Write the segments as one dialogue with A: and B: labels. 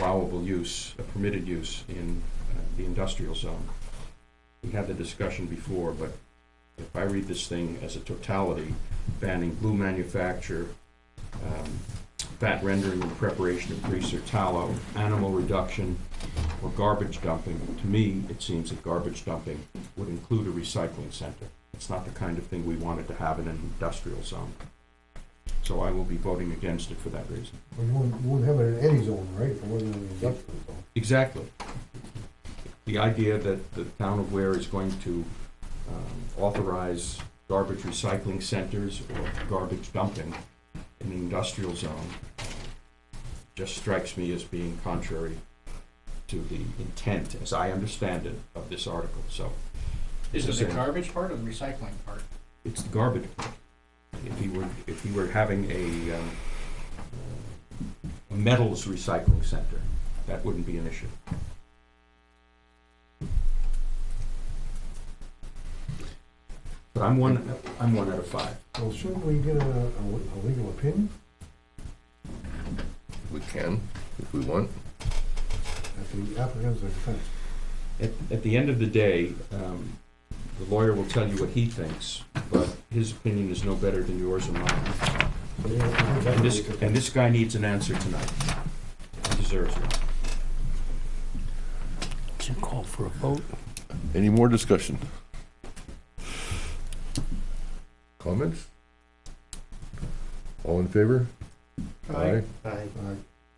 A: allowable use, a permitted use in uh, the industrial zone. We had the discussion before, but if I read this thing as a totality, banning glue manufacture, um, fat rendering and preparation of grease or tallow, animal reduction, or garbage dumping, to me, it seems that garbage dumping would include a recycling center. It's not the kind of thing we wanted to have in an industrial zone. So I will be voting against it for that reason.
B: Well, you wouldn't, you wouldn't have it in any zone, right, if it wasn't in the industrial zone.
A: Exactly. The idea that the town of Ware is going to um, authorize garbage recycling centers or garbage dumping in the industrial zone just strikes me as being contrary to the intent, as I understand it, of this article, so.
C: Is it the
A: Okay.
C: garbage part or the recycling part?
A: It's the garbage. If he were, if he were having a um, a metals recycling center, that wouldn't be an issue. But I'm one, I'm one out of five.
B: Well, shouldn't we get a, a a legal opinion?
D: We can, if we want.
B: At the applicant's expense.
A: At, at the end of the day, um, the lawyer will tell you what he thinks, but his opinion is no better than yours or mine. And this, and this guy needs an answer tonight. He Deserves one.
E: call for a vote.
D: Any more discussion? Comments? All in favor? Aye.
B: Aye.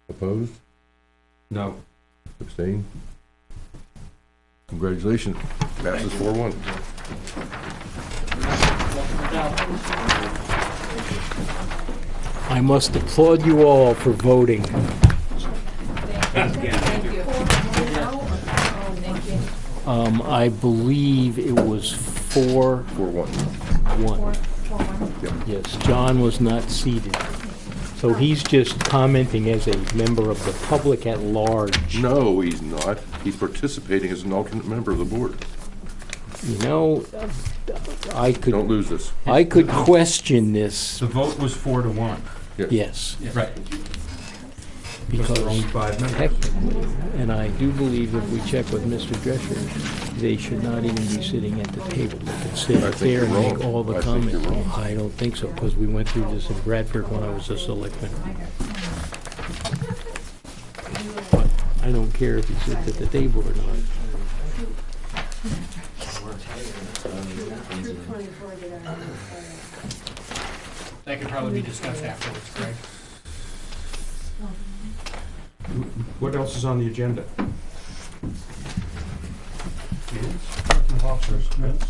D: Opposed?
A: No,
D: Abstained? Congratulations. Passes four one.
E: I must applaud you all for voting.
F: Thank you. Thank you.
E: Um, I believe it was four,
D: Four one.
E: one.
F: Four, four, one.
E: Yes, John was not seated. So he's just commenting as a member of the public at large.
D: No, he's not. He's participating as an alternate member of the board.
E: You know, I
D: Don't
E: could,
D: lose this.
E: I could question this,
A: the vote was four to one.
E: yes,
A: Right. Because there are only
E: because
A: five members.
E: technically, and I do believe if we check with Mr. Drescher, they should not even be sitting at the table. They could sit
D: I
E: up
D: think
E: there and
D: you're
E: make
D: wrong.
E: all the
D: I think you're
E: comments.
D: wrong.
E: I don't think so, because we went through this in Bradford when I was a selectman. But I don't care if he sits at the table or not.
C: That could probably be discussed afterwards, Greg.
A: What else is on the agenda?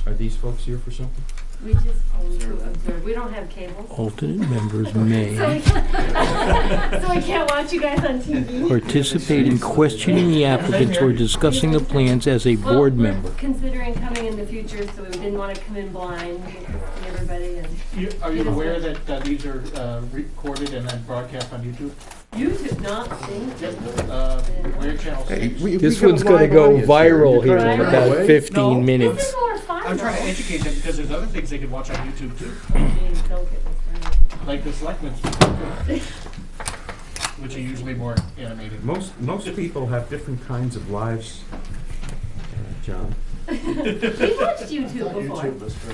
A: Are these folks here for something?
F: We just need to observe, we don't have cable,
E: Alternate members may
F: so we can't watch you guys on TV.
E: participate in questioning the applicants or discussing the plans as a
F: Well,
E: board
F: we're
E: member.
F: Considering coming in the future, so we didn't wanna come in blind, we could see everybody and
C: You- Are you
F: Yes.
C: aware that uh, these are uh, recorded and then broadcast on YouTube?
F: YouTube not synced.
C: Yep, uh, Ware Channel Six.
E: This one's gonna go viral here in
F: Right
E: about
D: away.
C: No.
E: 15
F: This
E: minutes.
F: is more fun though.
C: I'm trying to educate them because there's other things they could watch on YouTube too,
F: Jeez, don't get me started.
C: like the selectmen's, which are usually more animated.
A: Most, most people have different kinds of lives, uh, John.
F: We've watched YouTube before.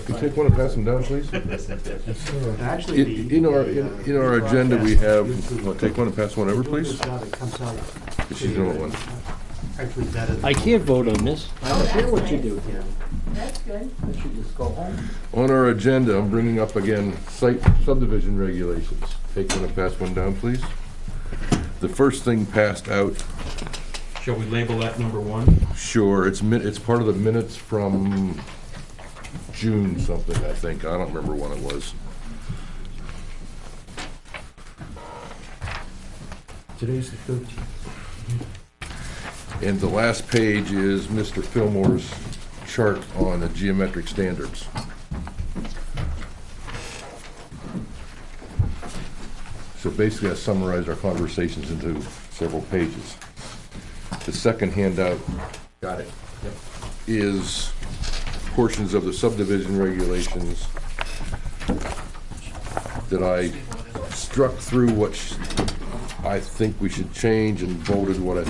D: Can you take one and pass them down, please?
B: Sure.
G: Actually,
D: In
G: the.
D: in our,
G: the,
D: in
G: uh,
D: in our
G: the
D: agenda, we have,
G: broadcast-
D: well, take one and pass one over, please.
G: Now that comes out,
D: She's the only one.
G: Actually, that is.
E: I can't vote on this.
G: I don't care what you
F: Oh, nice.
G: do, Tim.
F: That's good.
G: I should just go home.
D: On our agenda, I'm bringing up again site subdivision regulations. Take one and pass one down, please. The first thing passed out,
A: Shall we label that number one?
D: sure, it's min, it's part of the minutes from June something, I think. I don't remember when it was.
A: Today's the thirteenth.
D: And the last page is Mr. Fillmore's chart on the geometric standards. So basically, I summarized our conversations into several pages. The second handout. Got it. Is portions of the subdivision regulations that I struck through what sh- I think we should change and voted what I